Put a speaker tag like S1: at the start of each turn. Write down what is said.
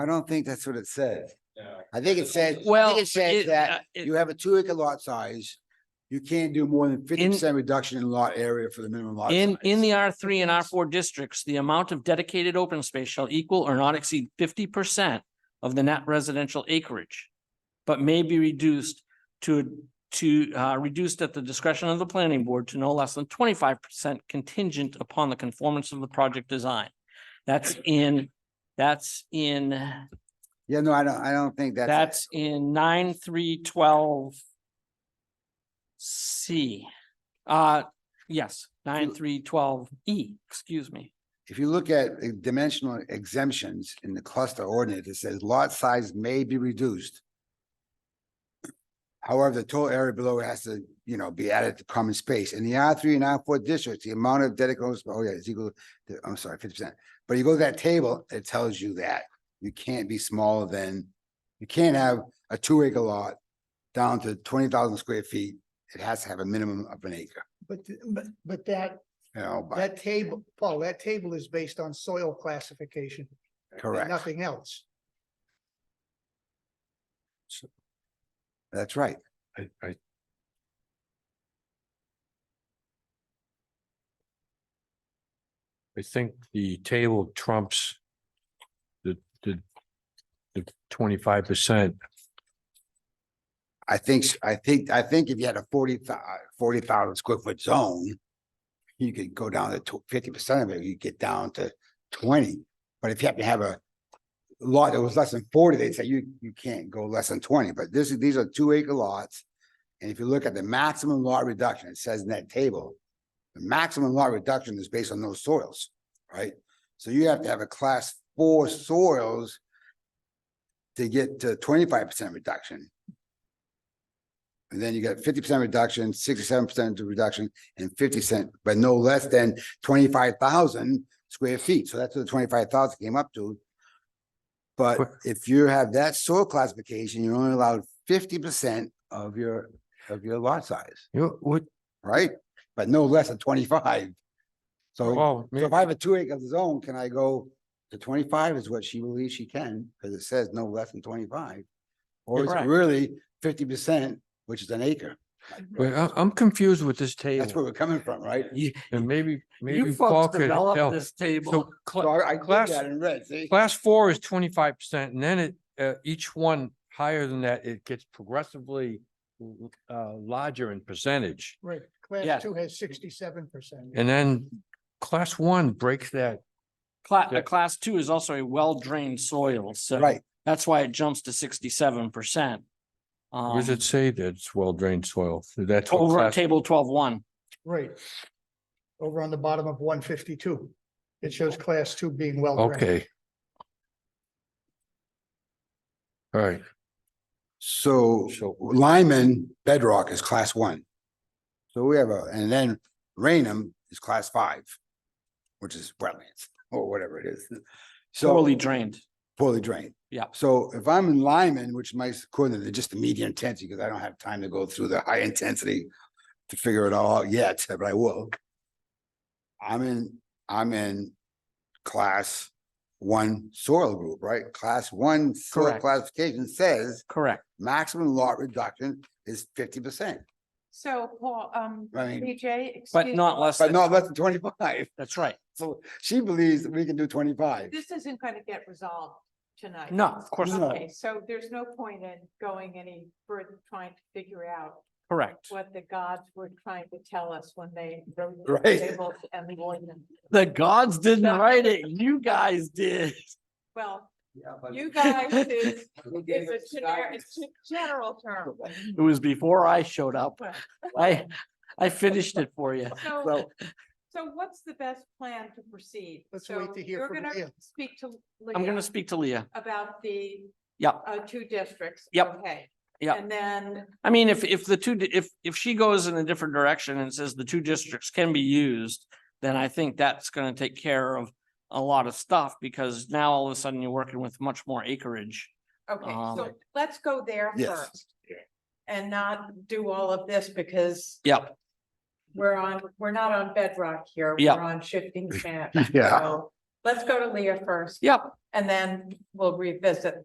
S1: I don't think that's what it says.
S2: No.
S1: I think it says, I
S3: Well,
S1: think it says
S3: it- uh,
S1: that
S3: it-
S1: you have a two acre lot size. You can't do more than fifty percent reduction in lot area for the minimum lot.
S3: In, in
S1: size.
S3: the R three and R four districts, the amount of dedicated open space shall equal or not exceed fifty percent of the net residential acreage, but may be reduced to, to, uh, reduced at the discretion of the planning board to no less than twenty-five percent contingent upon the conformance of the project design. That's in, that's in,
S1: Yeah, no, I don't, I don't think that's.
S3: that's in nine, three, twelve C. Uh, yes, nine, three, twelve E, excuse me.
S1: If you look at uh, dimensional exemptions in the cluster ordinance, it says lot size may be reduced. However, the total area below it has to, you know, be added to common space. In the R three and R four districts, the amount of dedicated, open sp- oh yeah, it's equal, to I'm sorry, fifty percent. But you go to that table, it tells you that you can't be smaller than, you can't have a two acre lot down to twenty thousand square feet. It has to have a minimum of an acre,
S4: But, th- but, but that,
S1: you know, but,
S4: that table, Paul, that table is based on soil classification, and
S1: correct.
S4: nothing else.
S1: That's right.
S5: I, I, I think the table trumps the, the, the twenty-five percent.
S1: I think, s- I think, I think if you had a forty forty thousand square foot zone, you could go down to fifty percent of it, you get down to twenty. But if you happen to have a lot that was less than forty, they'd say you, you can't go less than twenty, but this is, these are two acre lots. And if you look at the maximum lot reduction, it says in that table, the maximum lot reduction is based on those soils, right? So you have to have a class four soils to get to twenty-five percent reduction. And then you got fifty percent reduction, sixty-seven percent reduction, and fifty cent, but no less than twenty-five thousand square feet. So that's what the twenty-five thousand came up to. But
S5: Quick-
S1: if you have that soil classification, you're only allowed fifty percent of your, of your lot size,
S5: You, know, what,
S1: right? But no less than twenty-five. So
S5: oh,
S1: so
S5: man,
S1: if I have a two acre zone, can I go to twenty-five is what she believes she can, because it says no less than twenty-five? Or is it
S3: Correct.
S1: really fifty percent, which is an acre?
S5: wait, I, I'm confused with this
S1: That's where
S5: table.
S1: we're coming from, right?
S3: You,
S5: And maybe, maybe
S3: you
S5: Paul
S3: folks
S5: could
S3: developed
S5: help.
S3: this
S5: So,
S3: table.
S1: So
S5: cla-
S1: I, I did
S5: class-
S1: that in red, see?
S5: class four is twenty-five percent and then it, uh, each one higher than that, it gets progressively uh, larger in percentage.
S4: Right.
S3: Yeah.
S4: Class two has sixty-seven percent.
S5: And then class one breaks that
S3: Cla- a class two is also a well-drained soil, so.
S1: Right,
S3: That's why it jumps to sixty-seven percent. Um,
S5: Where does it say that it's well-drained soil? That's. what
S3: Over at
S5: class-
S3: table twelve one.
S4: Right. Over on the bottom of one fifty-two, it shows class two being well. drained.
S5: Oh. Okay. All right,
S1: so
S5: So-
S1: Lyman Bedrock is class one. So we have a, and then Rainham is class five, which is wetlands or whatever it is. So.
S3: poorly drained.
S1: poorly drained.
S3: Yeah.
S1: So if I'm in Lyman, which my, according to just the medium intensity, because I don't have time to go through the high intensity to figure it all out yet, but I will. I'm in, I'm in class one soil group, right? Class one soil
S3: Correct.
S1: classification says
S3: Correct.
S1: maximum lot reduction is fifty percent,
S6: So Paul, um,
S1: I mean,
S6: BJ, excuse.
S3: But not less
S1: but
S3: than,
S1: not less than twenty-five.
S3: that's right.
S1: So she believes that we can do twenty-five.
S6: This isn't going to get resolved tonight.
S3: No, of course
S1: No.
S3: not.
S6: Okay, so there's no point in going any further trying to figure out
S3: Correct.
S6: what the gods were trying to tell us when they wrote the
S1: Right.
S6: tables and the ordinance.
S3: The gods didn't write it. You guys did.
S6: Well, you guys is, is a generic, it's a general term.
S3: It was before I showed up.
S6: Well,
S3: I, I finished it for you.
S6: So, so what's the best plan to proceed?
S4: Let's wait
S6: So
S4: to hear
S6: you're
S4: from
S6: gonna
S4: Leah.
S6: Speak to.
S3: I'm
S6: Leah
S3: gonna speak to Leah.
S6: About the.
S3: Yep.
S6: Uh, two districts.
S3: Yep.
S6: Okay.
S3: Yep.
S6: And then
S3: I mean, if, if the two, di- if, if she goes in a different direction and says the two districts can be used, then I think that's gonna take care of a lot of stuff because now all of a sudden you're working with much more acreage.
S6: Okay, so
S3: Um,
S6: let's go there
S1: Yes.
S6: first. And not do all of this because
S3: Yep,
S6: we're on, we're not on bedrock here.
S3: Yeah.
S6: We're on shifting sand.
S1: Yeah.
S6: So Let's go to Leah first.
S3: Yep.
S6: And then we'll revisit